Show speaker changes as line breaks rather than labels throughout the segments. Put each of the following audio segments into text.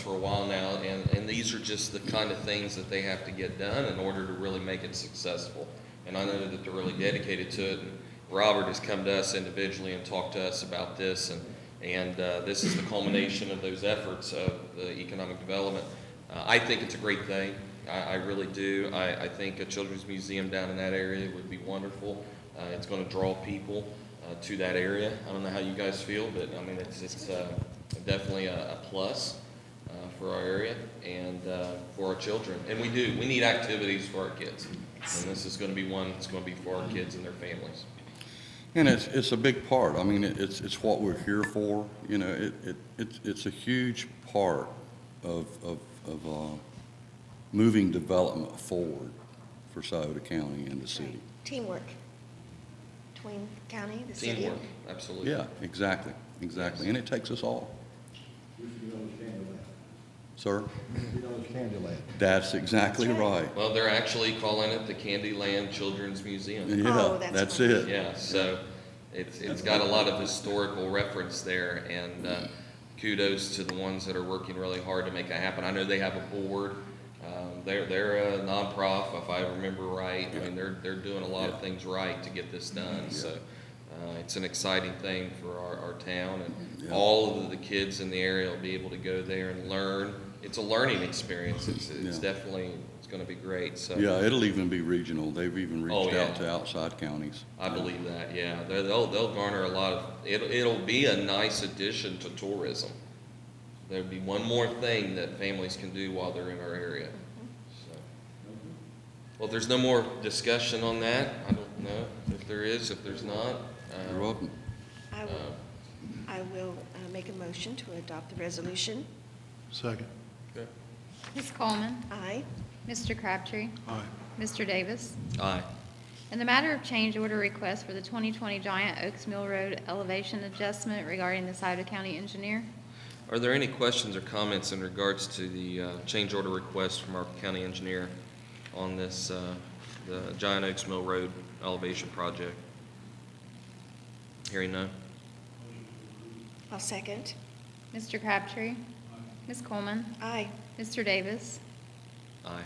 for a while now, and, and these are just the kind of things that they have to get done in order to really make it successful. And I know that they're really dedicated to it, and Robert has come to us individually and talked to us about this, and, and uh, this is the culmination of those efforts of the economic development. Uh, I think it's a great thing, I, I really do. I, I think a children's museum down in that area would be wonderful. Uh, It's going to draw people uh, to that area. I don't know how you guys feel, but I mean, it's, it's uh, definitely a a plus uh, for our area and uh, for our children. And we do, we need activities for our kids. And this is going to be one that's going to be for our kids and their families.
And it's, it's a big part. I mean, it- it's, it's what we're here for, you know, it, it, it's, it's a huge part of, of, of, uh, moving development forward for Souda County and the city.
Teamwork between county, the city.
Teamwork, absolutely.
Yeah, exactly, exactly. And it takes us all,
We should get on the Candyland.
sir.
Get on the Candyland.
That's exactly right.
Well, they're actually calling it the Candyland Children's Museum.
Yeah,
Oh, that's
that's
right.
it.
Yeah, so it's, it's got a lot of historical reference there, and uh, kudos to the ones that are working really hard to make that happen. I know they have a board, um, they're, they're a nonprofit, if I remember right, I mean, they're, they're doing a lot of things right to get this done, so uh, it's an exciting thing for our, our town, and
Yeah.
all of the kids in the area will be able to go there and learn. It's a learning experience, it's, it's
Yeah.
definitely, it's gonna be great, so.
Yeah, it'll even be regional. They've even
Oh,
reached
yeah.
out to outside counties.
I believe that, yeah. They're- They'll, they'll garner a lot of, it'll, it'll be a nice addition to tourism. There'd be one more thing that families can do while they're in our area, so. Well, if there's no more discussion on that, I don't know if there is, if there's not. uh,
You're welcome.
I
uh,
will, I will uh, make a motion to adopt the resolution.
Second.
Ms. Coleman.
Aye.
Mr. Crabtree.
Aye.
Mr. Davis.
Aye.
In the matter of change order request for the 2020 Giant Oaks Mill Road elevation adjustment regarding the Souda County engineer.
Are there any questions or comments in regards to the uh, change order request from our county engineer on this, uh, the Giant Oaks Mill Road elevation project? Hearing none?
I'll second.
Mr. Crabtree. Ms. Coleman.
Aye.
Mr. Davis.
Aye.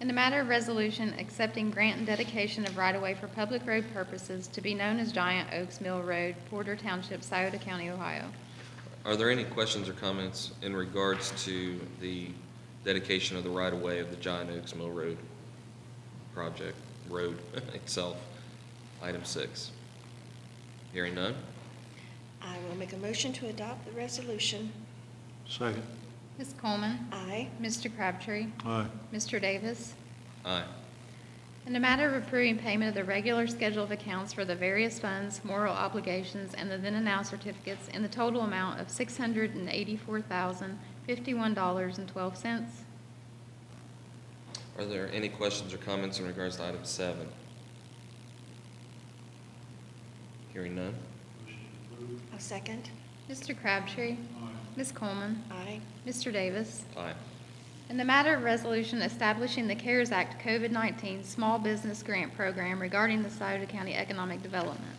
In the matter of resolution accepting grant and dedication of right-of-way for public road purposes to be known as Giant Oaks Mill Road, Porter Township, Souda County, Ohio.
Are there any questions or comments in regards to the dedication of the right-of-way of the John Oaks Mill Road project, road itself, item six? Hearing none?
I will make a motion to adopt the resolution.
Second.
Ms. Coleman.
Aye.
Mr. Crabtree.
Aye.
Mr. Davis.
Aye.
In the matter of approving payment of the regular schedule of accounts for the various funds, moral obligations, and the then and now certificates in the total amount of six hundred and eighty-four thousand, fifty-one dollars and twelve cents.
Are there any questions or comments in regards to item seven? Hearing none?
I'll second.
Mr. Crabtree. Ms. Coleman.
Aye.
Mr. Davis.
Aye.
In the matter of resolution establishing the CARES Act COVID-19 Small Business Grant Program regarding the Souda County Economic Development.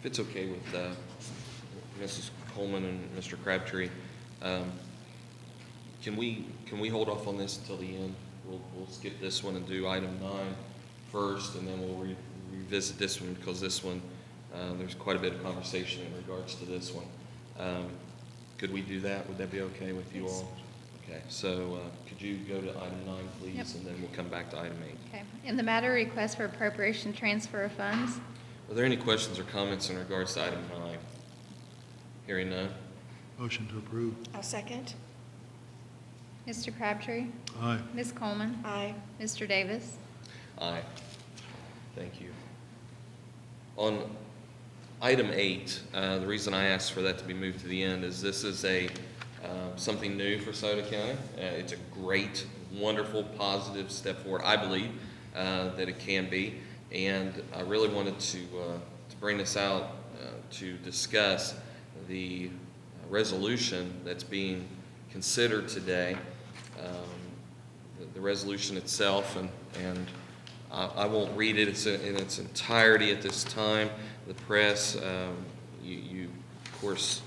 If it's okay with uh, Mrs. Coleman and Mr. Crabtree, um, can we, can we hold off on this until the end? We'll, we'll skip this one and do item nine first, and then we'll re- revisit this one, because this one, uh, there's quite a bit of conversation in regards to this one. Um, Could we do that? Would that be okay with you all? Okay, so uh, could you go to item nine, please,
Yep.
and then we'll come back to item eight.
Okay. In the matter of request for appropriation transfer of funds,
Are there any questions or comments in regards to item nine? Hearing none?
Motion to approve.
I'll second.
Mr. Crabtree.
Aye.
Ms. Coleman.
Aye.
Mr. Davis.
Aye. Thank you. On item eight, uh, the reason I asked for that to be moved to the end is this is a, um, something new for Sauter County. Uh, It's a great, wonderful, positive step forward, I believe, uh, that it can be. And I really wanted to, uh, to bring this out uh, to discuss the resolution that's being considered today. Um, the- the resolution itself, and, and I I won't read it It's in in its entirety at this time. The press, um, you, you, of course,